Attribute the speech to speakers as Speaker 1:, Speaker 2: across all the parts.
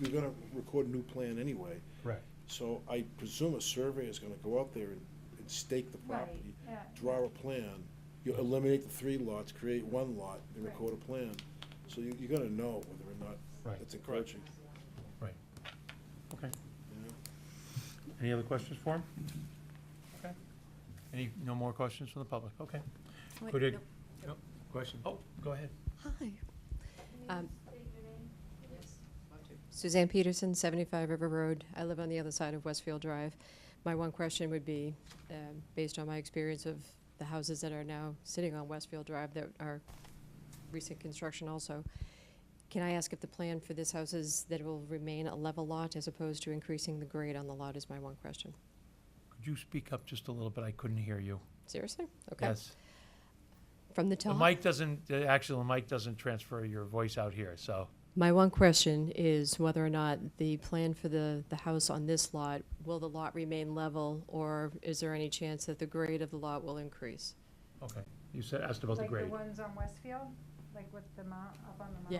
Speaker 1: you're gonna record a new plan anyway.
Speaker 2: Correct.
Speaker 1: So I presume a surveyor is gonna go out there and, and stake the
Speaker 3: Right,
Speaker 1: property,
Speaker 3: yeah.
Speaker 1: draw a plan, you eliminate the three lots, create one lot, and
Speaker 3: Right.
Speaker 1: record a plan. So you, you're gonna know whether or not
Speaker 2: Right.
Speaker 1: it's encroaching,
Speaker 2: Right. Okay.
Speaker 1: you know?
Speaker 2: Any other questions for him? Okay. Any, no more questions from the public? Okay.
Speaker 4: Wait,
Speaker 2: Could it-
Speaker 4: no.
Speaker 2: Nope. Question? Oh, go ahead.
Speaker 4: Hi. Um, Suzanne Peterson, 75 River Road. I live on the other side of Westfield Drive. My one question would be, um, based on my experience of the houses that are now sitting on Westfield Drive that are recent construction also, can I ask if the plan for this house is that it will remain a level lot as opposed to increasing the grade on the lot is my one question.
Speaker 2: Could you speak up just a little bit? I couldn't hear you.
Speaker 4: Seriously? Okay.
Speaker 2: Yes.
Speaker 4: From the
Speaker 2: The
Speaker 4: top?
Speaker 2: mic doesn't, the- actually, the mic doesn't transfer your voice out here, so.
Speaker 4: My one question is whether or not the plan for the, the house on this lot, will the lot remain level, or is there any chance that the grade of the lot will increase?
Speaker 2: Okay. You said, asked about the
Speaker 3: Like
Speaker 2: grade.
Speaker 3: the ones on Westfield, like with the mount, up on the mount?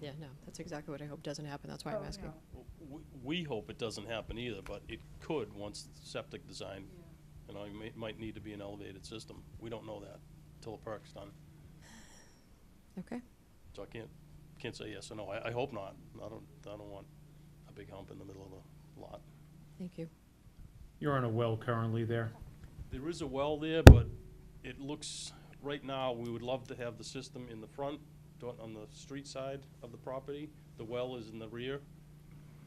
Speaker 4: Yeah. Yeah, no, that's exactly what I hope doesn't happen, that's why I'm
Speaker 3: Oh,
Speaker 4: asking.
Speaker 3: no.
Speaker 5: We, we hope it doesn't happen either, but it could once septic design, you know, it may, might need to be an elevated system. We don't know that till the park's done,
Speaker 4: Okay,
Speaker 5: so I can't, can't say yes or no. I, I hope not. I don't, I don't want a big hump in the middle of the lot.
Speaker 4: thank you.
Speaker 2: You're on a well currently there?
Speaker 5: There is a well there, but it looks, right now, we would love to have the system in the front, do- on the street side of the property. The well is in the rear,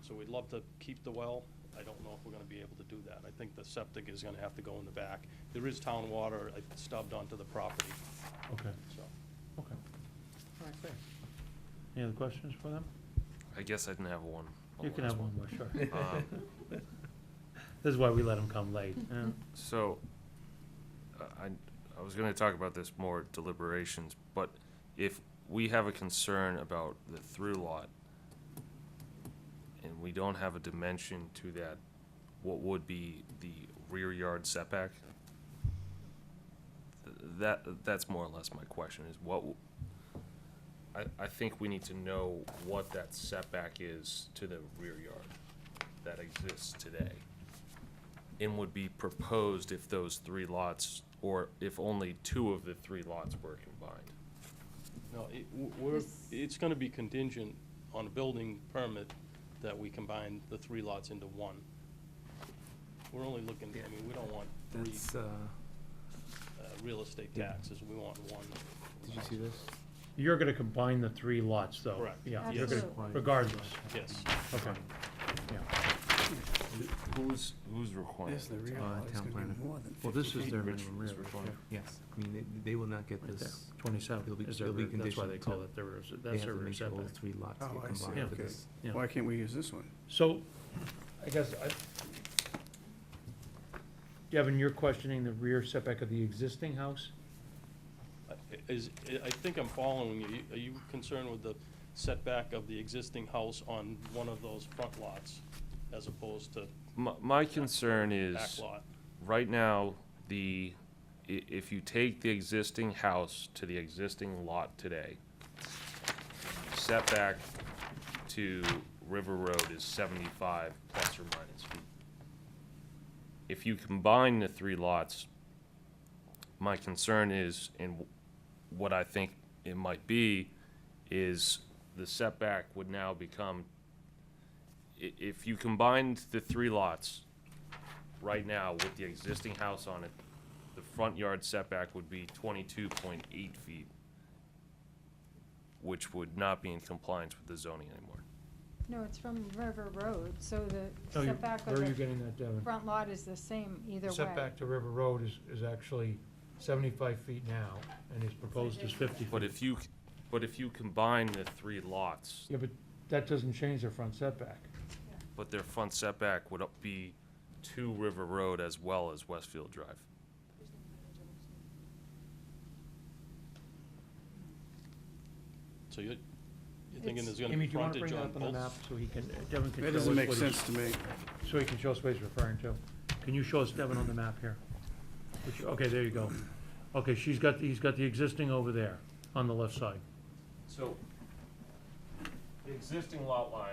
Speaker 5: so we'd love to keep the well. I don't know if we're gonna be able to do that. I think the septic is gonna have to go in the back. There is town water uh, stubbed onto the property,
Speaker 2: Okay,
Speaker 5: so.
Speaker 2: okay. All right, fair. Any other questions for them?
Speaker 6: I guess I can have one.
Speaker 2: You can
Speaker 6: last
Speaker 2: have Oh, one Uh, more, sure.
Speaker 6: Um,
Speaker 2: This is why we let them come late. yeah.
Speaker 6: So, uh, I, I was gonna talk about this more at deliberations, but if we have a concern about the through lot and we don't have a dimension to that, what would be the rear yard setback? Th- That, that's more or less my question, is what, w- I, I think we need to know what that setback is to the rear yard that exists today and would be proposed if those three lots, or if only two of the three lots were combined.
Speaker 5: No, it, w- we're,
Speaker 3: This-
Speaker 5: it's gonna be contingent on a building permit that we combine the three lots into one. We're only looking, I mean, we don't want three
Speaker 7: That's, uh,
Speaker 5: uh, real estate
Speaker 2: Yeah.
Speaker 5: taxes, we want one.
Speaker 7: did you see this?
Speaker 2: You're gonna combine the three lots, though?
Speaker 5: Correct.
Speaker 2: Yeah, you're
Speaker 3: Yes.
Speaker 2: gonna,
Speaker 7: Absolutely.
Speaker 2: regardless,
Speaker 5: Yes,
Speaker 2: okay, yeah.
Speaker 6: Who's, who's requiring?
Speaker 8: This is the
Speaker 6: it?
Speaker 8: real,
Speaker 7: Uh,
Speaker 8: lot. it's
Speaker 7: town
Speaker 8: gonna
Speaker 7: planner.
Speaker 8: be more than fifty
Speaker 7: Well, this is
Speaker 8: feet.
Speaker 7: their
Speaker 6: Rich-
Speaker 7: minimum rear,
Speaker 6: it's
Speaker 7: yard,
Speaker 6: required.
Speaker 7: yeah. yes, I mean, they, they will not get this, It'll
Speaker 2: Twenty-seven
Speaker 7: be-
Speaker 2: is
Speaker 7: it'll be
Speaker 2: their- that's why they
Speaker 7: conditioned
Speaker 2: call
Speaker 7: to-
Speaker 2: it the, rear-
Speaker 7: they
Speaker 2: that's
Speaker 7: have
Speaker 2: their
Speaker 7: to
Speaker 2: rear
Speaker 7: make sure all
Speaker 2: setback.
Speaker 7: three lots
Speaker 8: Oh,
Speaker 7: get
Speaker 8: I see,
Speaker 7: combined for
Speaker 2: okay.
Speaker 7: this.
Speaker 2: Yeah.
Speaker 8: Why can't we use this one?
Speaker 2: So, I guess I, Devin, you're questioning the rear setback of the existing house?
Speaker 5: I- is, I- I think I'm following you. Are you concerned with the setback of the existing house on one of those front lots as opposed to
Speaker 6: My, my concern
Speaker 5: back
Speaker 6: is,
Speaker 5: lot?
Speaker 6: right now, the, i- if you take the existing house to the existing lot today, setback to River Road is seventy-five plus or minus feet. If you combine the three lots, my concern is, and what I think it might be, is the setback would now become, i- if you combined the three lots right now with the existing house on it, the front yard setback would be twenty-two point eight feet, which would not be in compliance with the zoning anymore.
Speaker 3: No, it's from River Road, so
Speaker 2: No,
Speaker 3: the
Speaker 2: you-
Speaker 3: setback
Speaker 2: Oh, Where
Speaker 3: of
Speaker 2: are you
Speaker 3: the
Speaker 2: getting that, Devin?
Speaker 3: front lot is the same either way.
Speaker 2: Setback to River Road is, is actually seventy-five feet now, and is proposed as fifty feet.
Speaker 6: But if you, c- but if you combine the three lots,
Speaker 2: Yeah, but that doesn't change their front setback.
Speaker 6: but their front setback would up- be to River Road as well as Westfield Drive.
Speaker 5: So you're, you're thinking
Speaker 3: It's-
Speaker 5: there's gonna
Speaker 2: Amy,
Speaker 5: be
Speaker 2: do you wanna
Speaker 5: frontage
Speaker 2: bring that
Speaker 5: on
Speaker 2: up on the map
Speaker 5: both?
Speaker 2: so he can, uh, Devin can show us
Speaker 8: That doesn't
Speaker 2: what he's...
Speaker 8: make sense to me.
Speaker 2: So he can show us what he's referring to. Can you show us Devin on the map here? Which- Okay, there you go. Okay, she's got, he's got the existing over there on the left side.
Speaker 6: So, the existing lot line